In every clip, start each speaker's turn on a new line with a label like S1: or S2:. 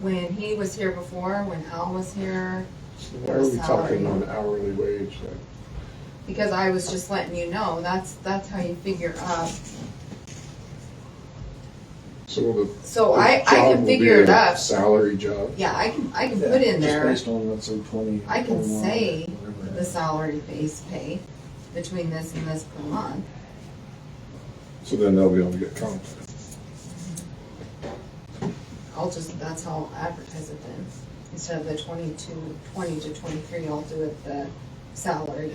S1: when he was here before, when Al was here,
S2: So Why are we talking on hourly wage then?
S1: because I was just letting you know, that's, that's how you figure up.
S2: So the.
S1: So
S2: the
S1: I, I
S2: job
S1: can
S2: will be
S1: figure it
S2: a
S1: up.
S2: Salary job?
S1: Yeah, I can, I can put in there
S3: Just based on what's in twenty.
S1: I can
S3: 21,
S1: say
S3: whatever it
S1: the
S3: is.
S1: salary base pay between this and this per month.
S2: So then they'll be able to get comp.
S1: I'll just, that's how I'll advertise it then. Instead of the twenty-two, twenty to twenty-three, I'll do it the salary,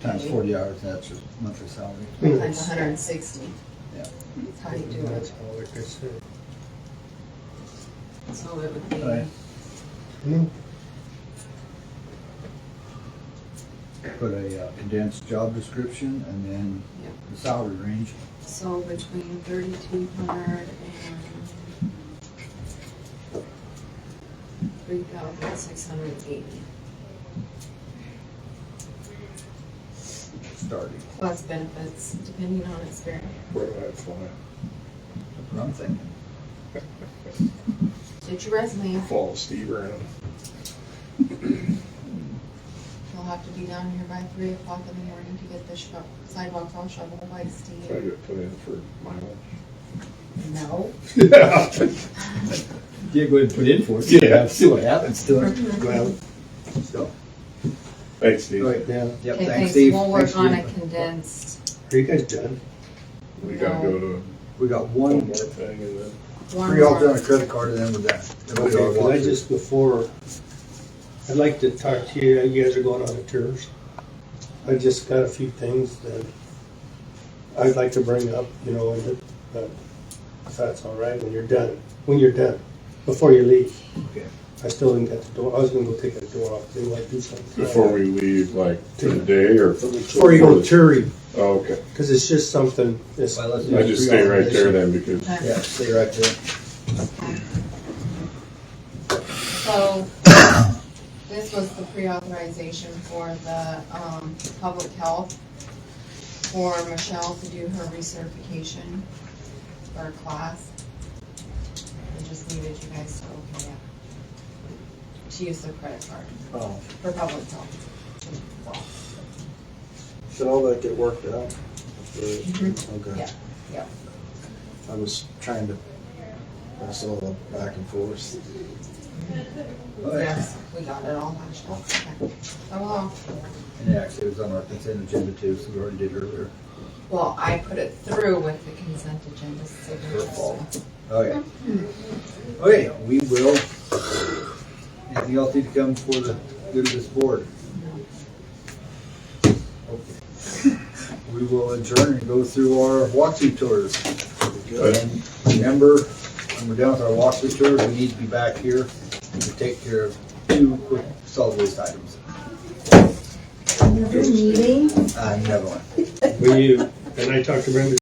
S4: Times forty hours, that's your monthly salary.
S1: times hundred and sixty.
S4: Yeah.
S1: That's how you do it. So it would be,
S4: Right. Put a uh, condensed job description and then
S1: Yep.
S4: the salary range.
S1: so between thirty-two hundred and three thousand six hundred and eighty.
S4: starting.
S1: Plus benefits, depending on experience.
S2: Where did I fly?
S4: That's what I'm thinking.
S1: Get your resume.
S2: Fall Steve around.
S1: You'll have to be down here by three o'clock in the morning to get the sho- sidewalk all shoveled by
S2: Did I
S1: Steve.
S2: get put in for mileage?
S1: No.
S2: Yeah.
S4: Yeah, go ahead and put in for it.
S2: Yeah.
S4: See what happens to it.
S2: Well,
S4: So,
S2: Thanks,
S4: all
S2: Steve.
S4: right, yeah, yep,
S1: Okay,
S4: thanks, Steve.
S1: We'll work
S4: Thanks,
S1: on a
S4: Steve.
S1: condensed
S3: Are you guys done?
S2: We gotta go to
S4: We got
S2: one
S4: one,
S2: more thing and then.
S1: one
S4: we all done a
S1: more.
S4: credit card and then we're done. Then we
S3: Okay,
S4: all
S3: well,
S4: walk
S3: I
S4: through.
S3: just, before, I'd like to talk to you, you guys are going on the tours. I just got a few things that I'd like to bring up, you know, and, it- but if that's all right, when you're done, when you're done, before you leave.
S4: Okay.
S3: I still didn't get the door, I was gonna go take the door off, didn't want to do something.
S2: Before we leave, like today or?
S3: Before you go touring,
S2: Oh, Okay.
S3: because it's just something, it's,
S4: Well, let's do
S2: I just
S4: three
S2: stay right there then because
S4: alternatives.
S1: Okay,
S4: Yeah, stay right there.
S1: So, this was the pre-authorization for the, um, public health for Michelle to do her recertification for her class. I just needed you guys to okay it. She used the credit card
S3: oh,
S1: for public health. Well,
S3: should all that get worked out?
S1: Yeah.
S3: Okay.
S1: Mm-hmm. yeah.
S3: I was trying to, I saw the back and forth.
S4: All right.
S1: Yes, we got it all matched up. Okay. Oh, well,
S4: And actually, it was on our consent agenda too, so we already did earlier.
S1: well, I put it through with the consent agenda signature.
S4: Your fault. Okay. Okay, we will. Anything else need to come for the good of this board? Okay. We will adjourn and go through our walkthrough tours. And remember, when we're done with our walkthrough tours, we need to be back here to take care of two quick solid waste items.
S5: Another meeting?
S4: Uh, another one.
S3: Will you, and I talked to Brenda